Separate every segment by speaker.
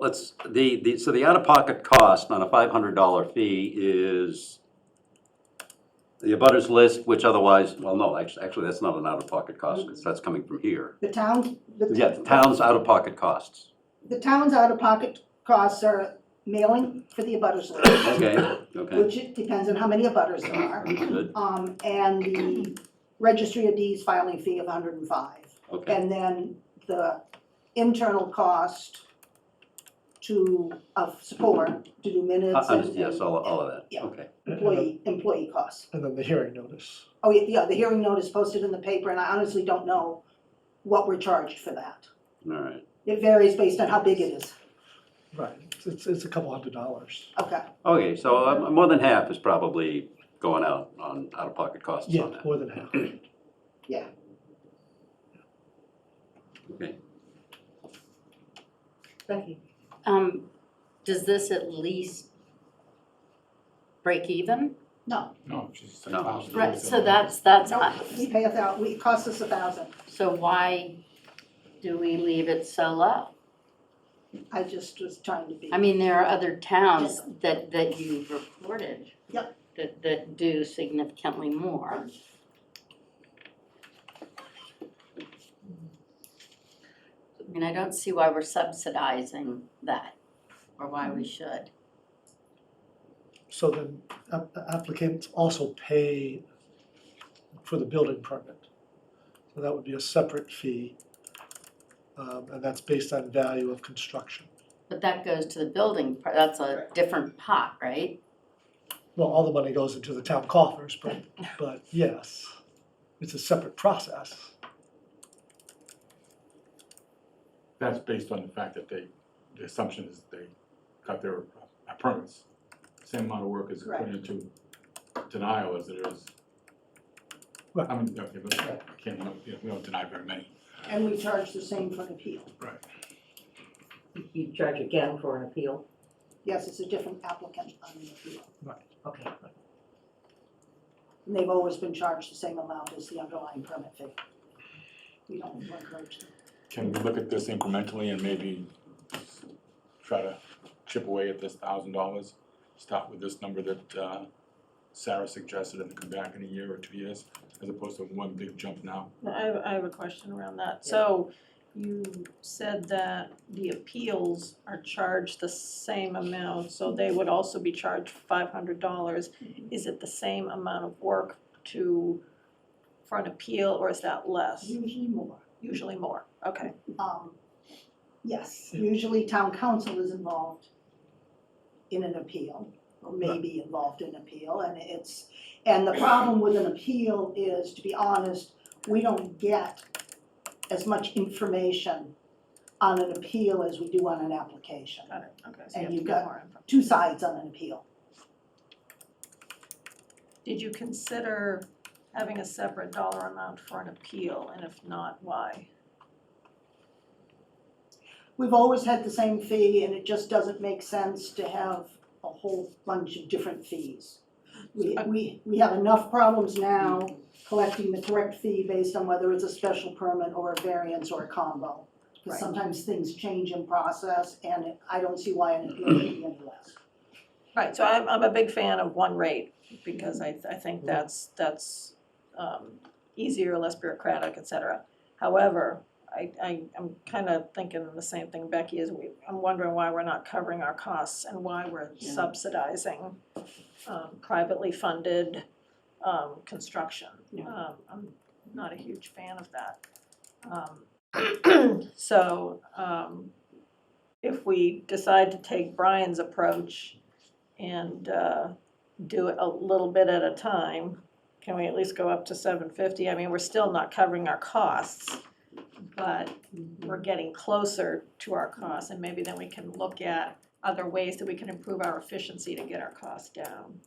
Speaker 1: Let's, the, the, so the out-of-pocket cost on a five hundred dollar fee is the abutters list, which otherwise, well, no, actually, actually, that's not an out-of-pocket cost, 'cause that's coming from here.
Speaker 2: The town, the.
Speaker 1: Yeah, the town's out-of-pocket costs.
Speaker 2: The town's out-of-pocket costs are mailing for the abutters list,
Speaker 1: Okay, okay.
Speaker 2: which it depends on how many abutters there are.
Speaker 1: Understood,
Speaker 2: Um, and the registry of deeds filing fee of hundred and five.
Speaker 1: okay.
Speaker 2: And then the internal cost to, of support, to do minutes
Speaker 1: Uh,
Speaker 2: and.
Speaker 1: Yes, all, all of that,
Speaker 2: Yeah.
Speaker 1: okay.
Speaker 2: Employee, employee costs.
Speaker 3: And then the hearing notice.
Speaker 2: Oh, yeah, yeah, the hearing notice posted in the paper, and I honestly don't know what we're charged for that.
Speaker 1: All right.
Speaker 2: It varies based on how big it is.
Speaker 3: Right, it's- it's, it's a couple hundred dollars.
Speaker 2: Okay,
Speaker 1: Okay, so uh, more than half is probably going out on out-of-pocket costs
Speaker 3: Yeah,
Speaker 1: on that.
Speaker 3: more than half.
Speaker 1: Okay.
Speaker 4: Becky. Um, does this at least break even?
Speaker 2: no,
Speaker 5: No, she's
Speaker 1: No.
Speaker 5: ten thousand.
Speaker 4: Right, so that's, that's,
Speaker 2: no, we pay a thou, we, it costs us a thousand.
Speaker 4: so why do we leave it so low?
Speaker 2: I just was trying to be.
Speaker 4: I mean, there are other towns that, that you've reported.
Speaker 2: Yep.
Speaker 4: That, that do significantly more. I mean, I don't see why we're subsidizing that, or why we should.
Speaker 3: So then ap- applicants also pay for the building permit. So that would be a separate fee, um, and that's based on value of construction.
Speaker 4: But that goes to the building, part. that's a different pot, right?
Speaker 3: Well, all the money goes into the town coffers, but, but yes, it's a separate process.
Speaker 5: That's based on the fact that they, the assumption is they got their uh, permits. Same amount of work is put
Speaker 2: Correct.
Speaker 5: into denial as it is.
Speaker 3: Right.
Speaker 5: I mean, okay, but I can't, we don't- you know, we don't deny very many.
Speaker 2: And we charge the same for an appeal.
Speaker 6: You charge again for an appeal?
Speaker 2: Yes, it's a different applicant on the appeal.
Speaker 6: Okay.
Speaker 2: And they've always been charged the same amount as the underlying permit fee. We don't encourage them.
Speaker 5: Can we look at this incrementally and maybe try to chip away at this thousand dollars? Start with this number that uh, Sarah suggested and then come back in a year or two years, as opposed to one big jump now.
Speaker 7: I have, I have a question around that. So you said that the appeals are charged the same amount, so they would also be charged five hundred dollars.
Speaker 2: Mm-hmm.
Speaker 7: Is it the same amount of work to, for an appeal, or is that less?
Speaker 2: Usually more.
Speaker 7: Usually more, okay.
Speaker 2: Um, yes, usually town council is involved in an appeal, or may be involved in appeal, and it's, and the problem with an appeal is, to be honest, we don't get as much information on an appeal as we do on an application.
Speaker 7: Got it, okay, so
Speaker 2: And
Speaker 7: you have to
Speaker 2: you
Speaker 7: get
Speaker 2: got-
Speaker 7: more info.
Speaker 2: Two sides on an appeal.
Speaker 7: Did you consider having a separate dollar amount for an appeal, and if not, why?
Speaker 2: We've always had the same fee, and it just doesn't make sense to have a whole bunch of different fees. We, we, we have enough problems now collecting the correct fee based on whether it's a special permit or a variance or a combo. Because
Speaker 7: Right.
Speaker 2: sometimes things change in process, and it- I don't see why an appeal would be any less.
Speaker 7: Right, so I'm, I'm a big fan of one rate, because I, I think that's, that's, um, easier, less bureaucratic, et cetera. However, I, I, I'm kinda thinking the same thing Becky is, we, I'm wondering why we're not covering our costs and why we're
Speaker 4: Yeah.
Speaker 7: subsidizing, um, privately funded, um, construction.
Speaker 4: Yeah.
Speaker 7: Um, I'm not a huge fan of that. Um, So, um, if we decide to take Brian's approach and, uh, do it a little bit at a time, can we at least go up to seven fifty? I mean, we're still not covering our costs, but we're getting closer to our costs, and maybe then we can look at other ways that we can improve our efficiency to get our costs down.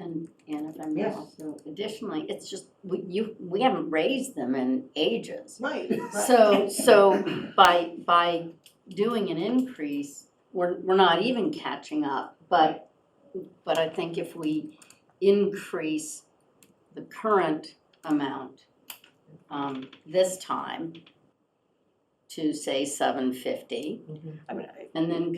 Speaker 4: And, and if I may
Speaker 2: Yes.
Speaker 4: also, additionally, it's just, we, you, we haven't raised them in ages.
Speaker 2: Right.
Speaker 4: So, so by, by doing an increase, we're, we're not even catching up, but, but I think if we increase the current amount, um, this time
Speaker 7: to say seven fifty
Speaker 4: I mean, I-
Speaker 7: and then